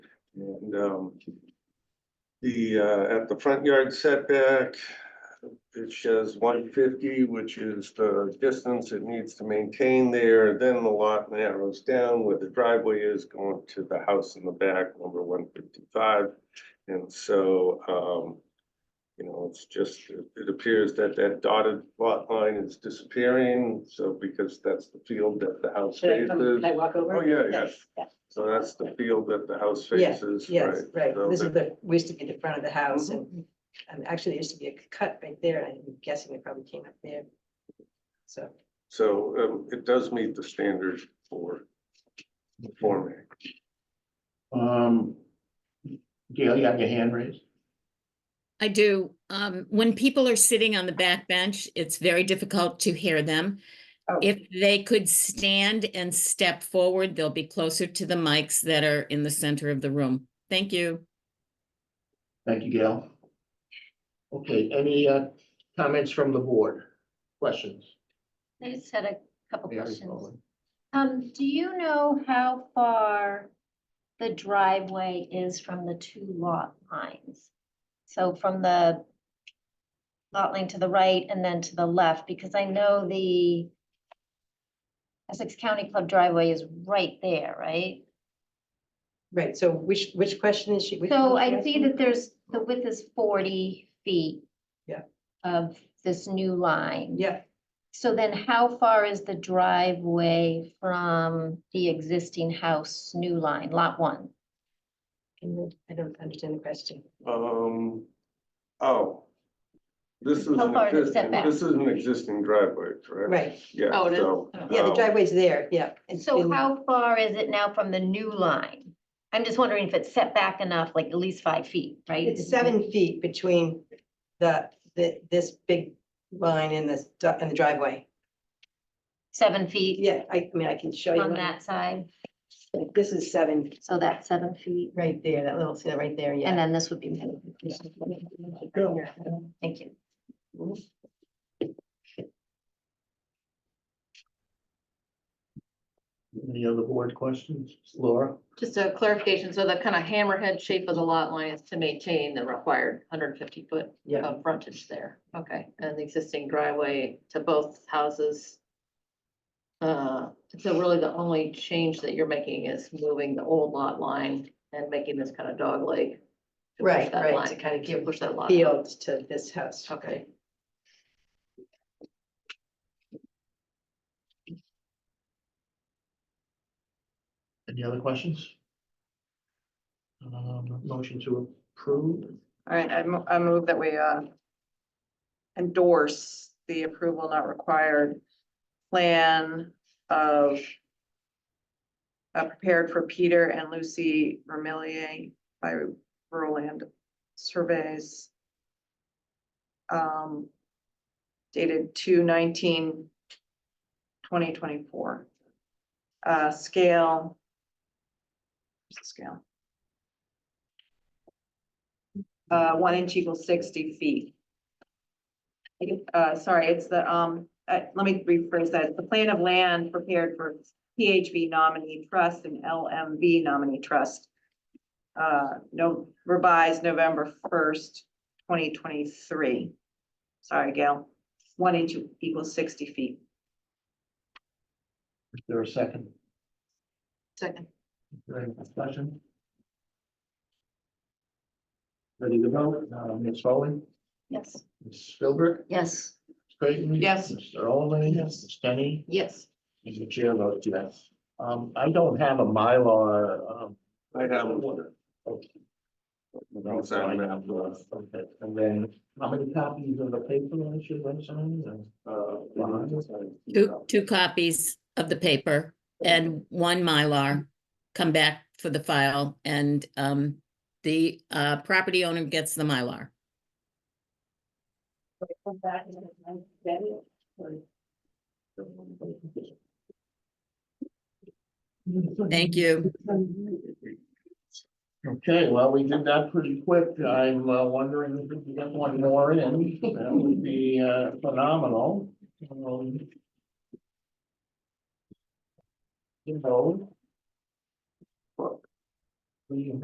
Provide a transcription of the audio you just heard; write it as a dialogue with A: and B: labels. A: And, um, the, uh, at the front yard setback, it shows one fifty, which is the distance it needs to maintain there. Then the lot narrows down where the driveway is going to the house in the back, number one fifty-five. And so, um, you know, it's just, it appears that that dotted lot line is disappearing. So because that's the field that the house
B: Should I
A: faces.
B: come, can I walk over?
A: Oh, yeah,
B: Yes,
A: So that's the field that the house
B: Yeah,
A: faces, right?
B: Yes, right,
A: So
B: this is
A: that- Mm-hmm.
B: the, we used to be the front of the house and, um, actually, there used to be a cut right there, and I'm guessing it probably came up there. So,
A: So um, it does meet the standard for forming.
C: Um, Gail, you have your hand raised?
D: I do. Um, when people are sitting on the back bench, it's very difficult to hear them.
B: Oh.
D: If they could stand and step forward, they'll be closer to the mics that are in the center of the room. Thank you.
C: Thank you, Gail. Okay, any, uh, comments from the board? Questions?
E: I just had a couple
C: Mary
E: questions.
C: Rowland.
E: Um, do you know how far the driveway is from the two lot lines? So from the lot line to the right and then to the left, because I know the Essex County Club driveway is right there, right?
B: right, so which, which question is she? which
E: So
B: one is she
E: I see
B: asking?
E: that there's, the width is forty feet
B: Yeah.
E: of this new line.
B: Yeah,
E: So then how far is the driveway from the existing house, new line, lot one?
B: can you- I don't understand the question.
A: Um, oh. This is,
E: How
A: an
E: far is it
A: existing-
E: setback?
A: this is an existing driveway, correct?
B: Right,
A: Yeah,
D: Oh, it is?
A: so.
B: yeah, the
A: um,
B: driveway's there, yeah. it's
E: So
B: in-
E: how far is it now from the new line? I'm just wondering if it's set back enough, like at least five feet, right?
B: It's seven feet between the, the, this big line and this, du- and the driveway.
E: Seven feet
B: Yeah, I, I mean, I can show you.
E: on
B: one.
E: that side,
B: Like, This is seven,
E: so that's seven feet.
B: right there, that little, see that right there,
E: And
B: yeah.
E: then this would be. Thank you.
C: Any other board questions? Laura?
F: Just a clarification, so the kind of hammerhead shape of the lot line is to maintain the required hundred and fifty foot
B: Yeah.
F: of frontage there, okay, and the existing driveway to both houses. Uh, so really the only change that you're making is moving the old lot line and making this kind of dog leg. to push
B: Right,
F: that
B: right,
F: line,
B: to
F: Kind of give, push that line.
B: Field to this house.
F: Okay.
C: Any other questions? Um, motion to approve,
G: All right, I mo- I move that we uh. Endorse the approval not required plan of. uh, prepared for Peter and Lucy Vermillier by rural land surveys. Um. Dated 2024. Uh, scale. what's the Scale. Uh, one inch equals sixty feet. Uh, sorry, it's the, um, uh, let me rephrase that. The plan of land prepared for PHV nominee trust and LMV nominee trust. Uh, no, revised November first, twenty twenty-three. Sorry, Gail. One inch equals sixty feet.
C: is there a second?
F: Second,
C: Is there any discussion? Ready to vote, uh, Ms. Foley,
E: Yes.
C: Ms. Spielberg,
E: Yes.
C: Ms. Creighton?
G: Yes.
C: Mr. Oldham, yes. Ms. Denny?
F: yes,
C: And the chair votes yes. Um, I don't have a Mylar, um.
A: I have,
C: Okay.
A: I'm sorry, I have, uh,
C: Okay, And then, how many copies of the paper I should have signed? or-
A: uh,
D: Two, two copies of the paper and one Mylar. Come back for the file and, um, the, uh, property owner gets the Mylar. Thank you.
C: Okay, well, we did that pretty quick. I'm uh, wondering if we can get one more in. That would be uh, phenomenal. Um, You know. but We